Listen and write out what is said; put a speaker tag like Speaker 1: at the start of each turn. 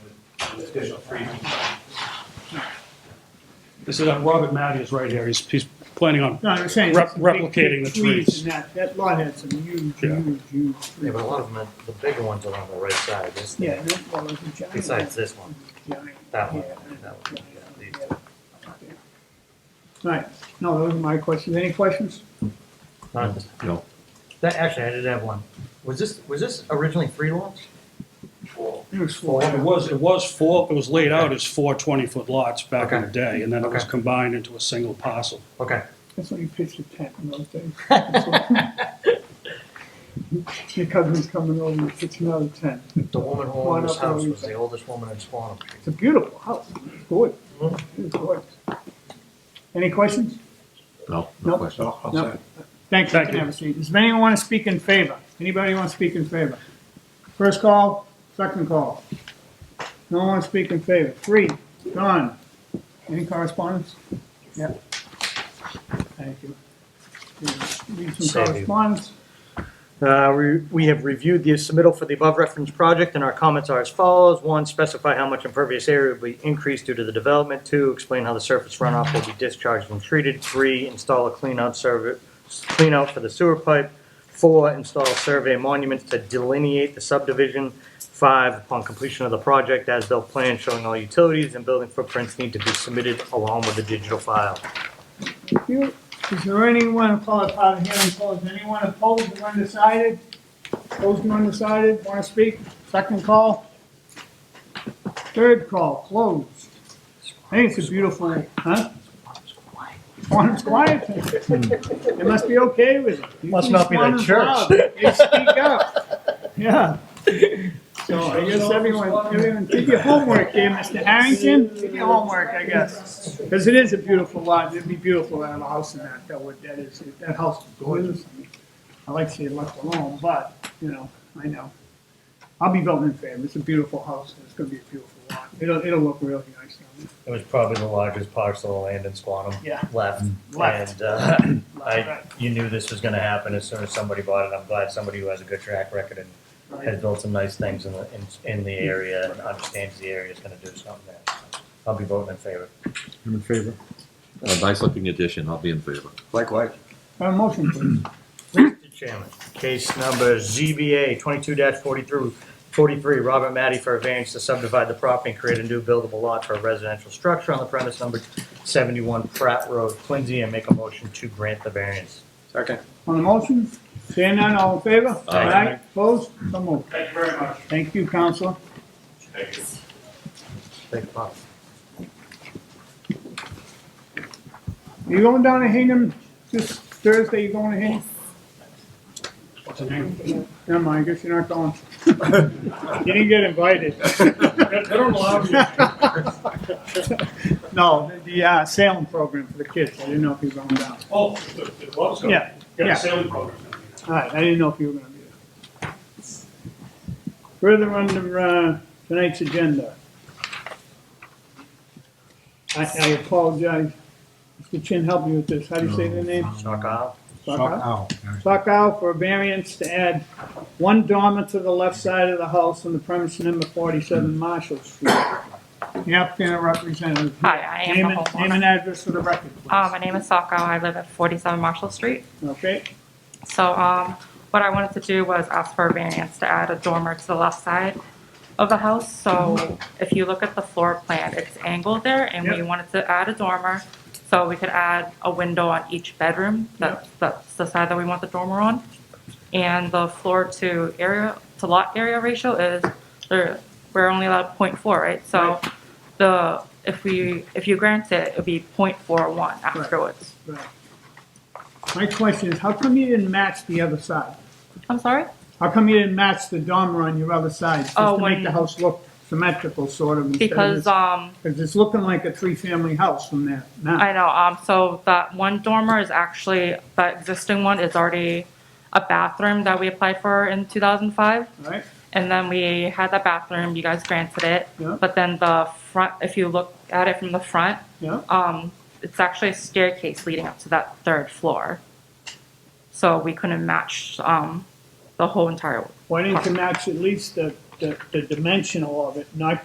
Speaker 1: There's a free- This is, uh, Robert Matty is right here, he's, he's planning on,
Speaker 2: No, I'm saying.
Speaker 1: Rep-
Speaker 2: it's some big,
Speaker 1: replicating
Speaker 2: big
Speaker 1: the trees.
Speaker 2: And that, that lot had some huge,
Speaker 1: Yeah.
Speaker 2: huge, huge
Speaker 3: Yeah,
Speaker 2: trees.
Speaker 3: but a lot of them, the bigger ones are on the right side, this
Speaker 2: Yeah,
Speaker 3: thing,
Speaker 2: that well, it was a giant.
Speaker 3: besides this one,
Speaker 2: giant,
Speaker 3: that one,
Speaker 2: yeah,
Speaker 3: that one, yeah, these
Speaker 2: yeah. Right, no, those are my questions. Any questions?
Speaker 3: two. Not this-
Speaker 4: No.
Speaker 3: That, actually, I did have one. Was this, was this originally three lots?
Speaker 2: It was four.
Speaker 1: it was, it was four, it was laid out as four 20-foot lots back in the day, and then it was
Speaker 3: Okay.
Speaker 1: combined into a single parcel.
Speaker 3: Okay,
Speaker 2: That's when you pitched a tent in those days. That's what- Your cousin's coming over, you pitch another tent.
Speaker 3: the woman who
Speaker 2: Why
Speaker 3: owned this
Speaker 2: not the
Speaker 3: house was
Speaker 2: reason?
Speaker 3: the oldest woman in Swanham.
Speaker 2: It's a beautiful house, it's gorgeous,
Speaker 3: Mhm.
Speaker 2: it's gorgeous. Any questions?
Speaker 4: No, no
Speaker 2: Nope.
Speaker 4: question.
Speaker 2: No. Thanks, you
Speaker 1: Thank
Speaker 2: can
Speaker 1: you.
Speaker 2: have a seat. Does anyone want to speak in favor? Anybody want to speak in favor? First call, second call. No one wants to speak in favor. Three, done. Any correspondence? Yep. Thank you. Need some
Speaker 3: Save you.
Speaker 2: correspondence?
Speaker 3: Uh, we- We have reviewed the submittal for the above referenced project, and our comments are as follows. One, specify how much impervious area will be increased due to the development. Two, explain how the surface runoff will be discharged and treated. Three, install a cleanout survey, cleanout for the sewer pipe. Four, install survey monuments to delineate the subdivision. Five, upon completion of the project, as-built plan showing all utilities and building footprints need to be submitted along with the digital file.
Speaker 2: Thank you. Is there anyone opposed, out of hearing opposed? Anyone opposed or undecided? Opposed or undecided, want to speak? Second call? Third call, closed. I think it's a beautiful, huh? Quantum's quiet. They must be okay with it. You
Speaker 3: Must
Speaker 2: keep
Speaker 3: not be their
Speaker 2: Quantum's
Speaker 3: church.
Speaker 2: loud. They speak up. Yeah. So I guess everyone, everyone, did your homework here, Mr. Harrington. Did your homework, I guess. Because it is a beautiful lot. It'd be beautiful to have a house in that. That would, that is, that house is gorgeous. I like to see it left alone, but, you know, I know. I'll be voting in favor. It's a beautiful house. It's gonna be a beautiful lot. It'll, it'll look really nice down there.
Speaker 3: It was probably the largest parcel of land in Squantum.
Speaker 2: Yeah.
Speaker 3: Left.
Speaker 2: Left.
Speaker 3: And, uh, I,
Speaker 2: Right.
Speaker 3: you knew this was gonna happen as soon as somebody bought it. I'm glad somebody who has a good track record and has
Speaker 2: Right.
Speaker 3: built some nice things in the, in, in the area and understands the area is gonna do something there. I'll be voting in favor.
Speaker 5: I'm in favor.
Speaker 4: A Uh, nice looking addition, I'll be in favor.
Speaker 5: Likewise.
Speaker 2: Uh, motion, please.
Speaker 3: Mr. Chairman, case number ZBA twenty-two forty-three, forty-three, Robert Matty for a variance to subdivide the property and create a new buildable lot for a residential structure on the premise number seventy-one Pratt Road, Quincy, and make a motion to grant the variance.
Speaker 5: Second.
Speaker 2: On the motion, seeing none, all in favor?
Speaker 4: Aye.
Speaker 2: Opposed? So moved.
Speaker 1: Thank you very much.
Speaker 2: Thank you, Counselor.
Speaker 1: Thank you.
Speaker 3: Take the box.
Speaker 2: You going down to Hingham this Thursday, you going to Hingham?
Speaker 1: What's the name?
Speaker 2: Never mind, I guess you're not going. You didn't get invited.
Speaker 1: They don't allow you.
Speaker 2: No, the- the uh, Salem program for the kids, I didn't know if you were going down.
Speaker 1: Oh, the, the Lowe's.
Speaker 2: Yeah, yeah.
Speaker 1: Got a sailing program.
Speaker 2: All right, I didn't know if you were gonna be there. Further under, uh, tonight's agenda. I, I apologize. Mr. Chin, help me with this. How do you say the name?
Speaker 3: Knock off.
Speaker 2: Sokow? Sokow for a variance to add one dormer to the left side of the house on the premise number forty-seven Marshall Street. The applicant or representative.
Speaker 6: Hi, I am
Speaker 2: Name
Speaker 6: the
Speaker 2: and-
Speaker 6: homeowner.
Speaker 2: Name and address for the record,
Speaker 6: Uh,
Speaker 2: please.
Speaker 6: my name is Sako. I live at 47 Marshall Street.
Speaker 2: Okay,
Speaker 6: So um, what I wanted to do was ask for a variance to add a dormer to the left side of the house. So if you look at the floor plan, it's angled there, and we
Speaker 2: Yep.
Speaker 6: wanted to add a dormer so we could add a window on each bedroom. That, That's the side that we want the dormer on. And the floor to area to lot area ratio is there. We're only allowed 0.4, right? So the if we if you grant it, it would be 0.41 afterwards.
Speaker 2: right. My question is, how come you didn't match the other side?
Speaker 6: I'm sorry.
Speaker 2: How come you didn't match the dormer on your other side, just
Speaker 6: Oh,
Speaker 2: to make
Speaker 6: when-
Speaker 2: the house look symmetrical, sort of? instead of
Speaker 6: Because,
Speaker 2: this-
Speaker 6: um,
Speaker 2: Cause it's looking like a three-family house from there now.
Speaker 6: I know, um, so that one dormer is actually, the existing one is already a bathroom that we applied for in two thousand five.
Speaker 2: Right?
Speaker 6: And then we had that bathroom, you guys granted it.
Speaker 2: Yeah.
Speaker 6: But then the front, if you look at it from the front,
Speaker 2: Yeah?
Speaker 6: um, it's actually a staircase leading up to that third floor. So we couldn't match, um, the whole entire
Speaker 2: Why didn't you match at least the, the, the dimensional of it, not